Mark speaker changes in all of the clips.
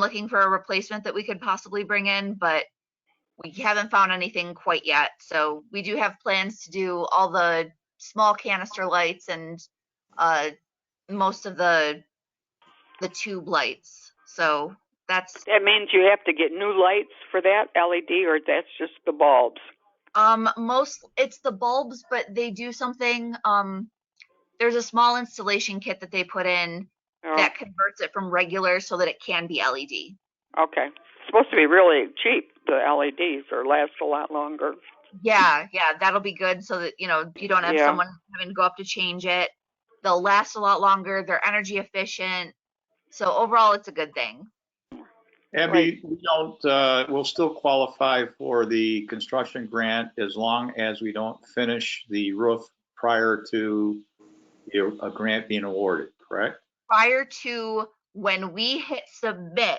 Speaker 1: looking for a replacement that we could possibly bring in, but we haven't found anything quite yet. So we do have plans to do all the small canister lights and uh, most of the the tube lights. So that's
Speaker 2: That means you have to get new lights for that LED, or that's just the bulbs.
Speaker 1: um most it's the bulbs, but they do something. Um, there's a small installation kit that they put in
Speaker 2: Oh,
Speaker 1: that converts it from regular so that it can be E LED.
Speaker 2: Okay. It's supposed to be really cheap, the LEDs, or last a lot longer.
Speaker 1: Yeah, yeah, that'll be good so that, you know, you don't have
Speaker 2: Yeah.
Speaker 1: someone having to go up to change it. They'll last a lot longer, they're energy efficient. So overall, it's a good thing.
Speaker 3: Abby, we don't, uh, we'll still qualify for the construction grant as long as we don't finish the roof prior to the- a grant being awarded, correct?
Speaker 1: Prior to when we hit submit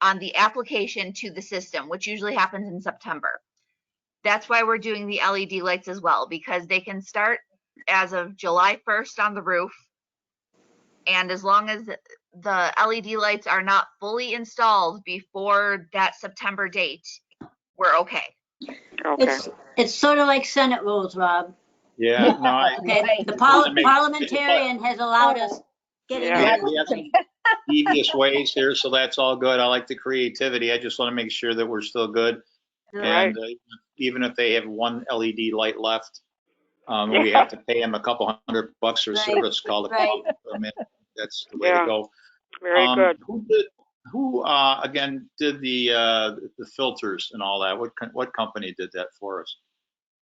Speaker 1: on the application to the system, which usually happens in September. That's why we're doing the LED lights as well, because they can start as of July 1st on the roof. And as long as the LED lights are not fully installed before that September date, we're okay.
Speaker 2: Okay.
Speaker 4: It's, it's sort of like Senate rules, Rob.
Speaker 3: Yeah, no, I,
Speaker 4: Okay, the
Speaker 3: Doesn't
Speaker 4: parli-
Speaker 3: make-
Speaker 4: parliamentarian has allowed us getting
Speaker 2: Yeah.
Speaker 3: Yeah,
Speaker 4: away
Speaker 3: we have
Speaker 4: with
Speaker 3: to-
Speaker 4: things.
Speaker 3: devious ways here, so that's all good. I like the creativity. I just want to make sure that we're still good. And uh, even if they have one LED light left, um, we have to pay them a couple hundred bucks for
Speaker 4: Right,
Speaker 3: service call. to-
Speaker 4: right.
Speaker 3: I mean, That's the way to
Speaker 2: Yeah.
Speaker 3: go.
Speaker 2: Very
Speaker 3: Um,
Speaker 2: good.
Speaker 3: Who did, who, uh, again, did the, uh, the filters and all that? What, co- what company did that for us?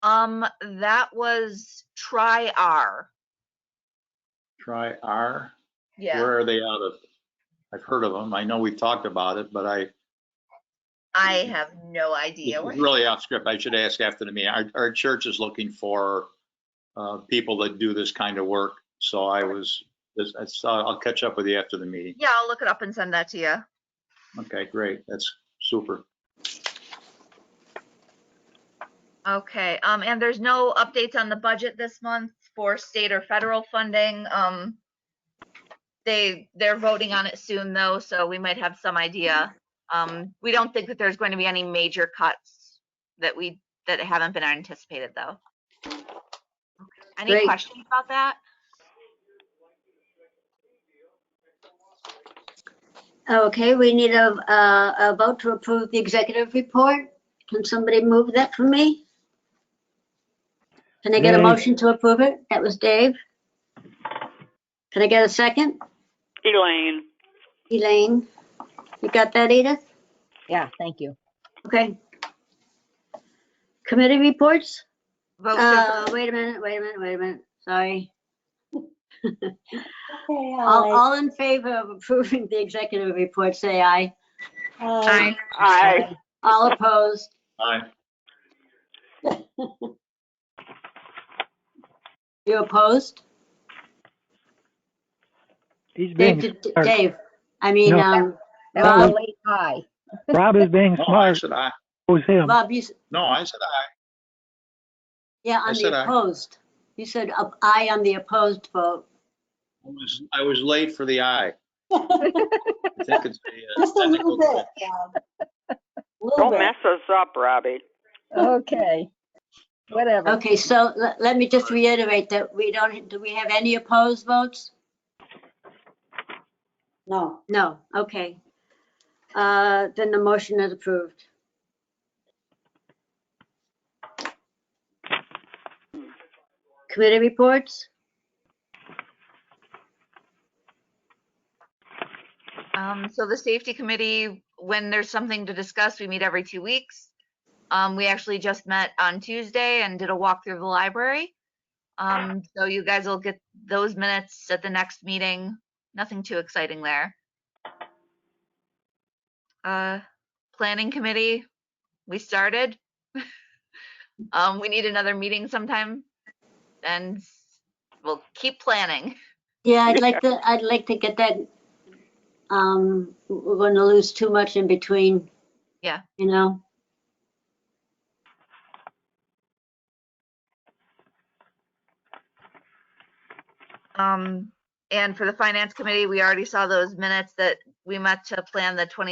Speaker 1: Um, that was try R.
Speaker 3: Try R?
Speaker 1: Yeah,
Speaker 3: Where are they out of? I've heard of them. I know we've talked about it, but I,
Speaker 1: I have no
Speaker 3: this
Speaker 1: idea.
Speaker 3: is
Speaker 1: what-
Speaker 3: really off script. I should ask after the meeting. Our, our church is looking for, uh, people that do this kind of work. So I was, this- I saw, I'll catch up with you after the meeting.
Speaker 1: Yeah, I'll look it up and send that to you.
Speaker 3: Okay, great. That's super.
Speaker 1: Okay, um, and there's no updates on the budget this month for state or federal funding. Um, they, they're voting on it soon though, so we might have some idea. Um, we don't think that there's going to be any major cuts that we, that haven't been anticipated though. Any
Speaker 4: Great.
Speaker 1: questions about that?
Speaker 4: Okay, we need a, uh, a vote to approve the executive report. Can somebody move that for me? Can I get a
Speaker 5: Me.
Speaker 4: motion to approve it? That was Dave. Can I get a second?
Speaker 2: Elaine.
Speaker 4: Elaine, you got that, Edith?
Speaker 5: Yeah, thank you.
Speaker 4: Okay. Committee reports?
Speaker 2: Oh,
Speaker 1: Vote to
Speaker 4: Uh, wait a minute, wait a minute, wait a minute, sorry.
Speaker 6: Okay,
Speaker 4: All,
Speaker 6: aye.
Speaker 4: all in favor of approving the executive report, say aye.
Speaker 6: Aye.
Speaker 1: Aye.
Speaker 2: Aye.
Speaker 4: All opposed?
Speaker 3: Aye.
Speaker 4: You opposed?
Speaker 5: He's
Speaker 4: Dave,
Speaker 5: being,
Speaker 4: did-
Speaker 5: smart.
Speaker 4: Dave, I mean,
Speaker 5: No.
Speaker 4: um,
Speaker 5: Rob.
Speaker 4: Rob,
Speaker 6: Aye. Aye.
Speaker 5: Rob is being
Speaker 3: No, I
Speaker 5: smart.
Speaker 3: said aye.
Speaker 5: Who's him?
Speaker 4: Bob, you, s-
Speaker 3: No, I said aye.
Speaker 4: yeah,
Speaker 3: I
Speaker 4: on
Speaker 3: said
Speaker 4: the
Speaker 3: aye.
Speaker 4: opposed. You said up- aye on the opposed vote.
Speaker 3: I was, I was late for the eye. I think it's the, uh,
Speaker 6: uh, Just a little
Speaker 3: technical-
Speaker 6: bit, Rob. Little
Speaker 2: Don't
Speaker 6: bit.
Speaker 2: mess us up, Robbie.
Speaker 6: Okay. Whatever.
Speaker 4: Okay, so le- let me just reiterate that we don't, do we have any opposed votes?
Speaker 6: No.
Speaker 4: No, okay. Uh, Then the motion is approved. Committee reports?
Speaker 1: Um, so the safety committee, when there's something to discuss, we meet every two weeks. Um, we actually just met on Tuesday and did a walk through the library. Um, so you guys will get those minutes at the next meeting. Nothing too exciting there. Uh, planning committee, we started. Um, we need another meeting sometime and we'll keep planning.
Speaker 4: Yeah, I'd like to, I'd like to get that. um, We're going to lose too much in between.
Speaker 1: Yeah.
Speaker 4: You know?
Speaker 1: Um, and for the finance committee, we already saw those minutes that we met to plan the twenty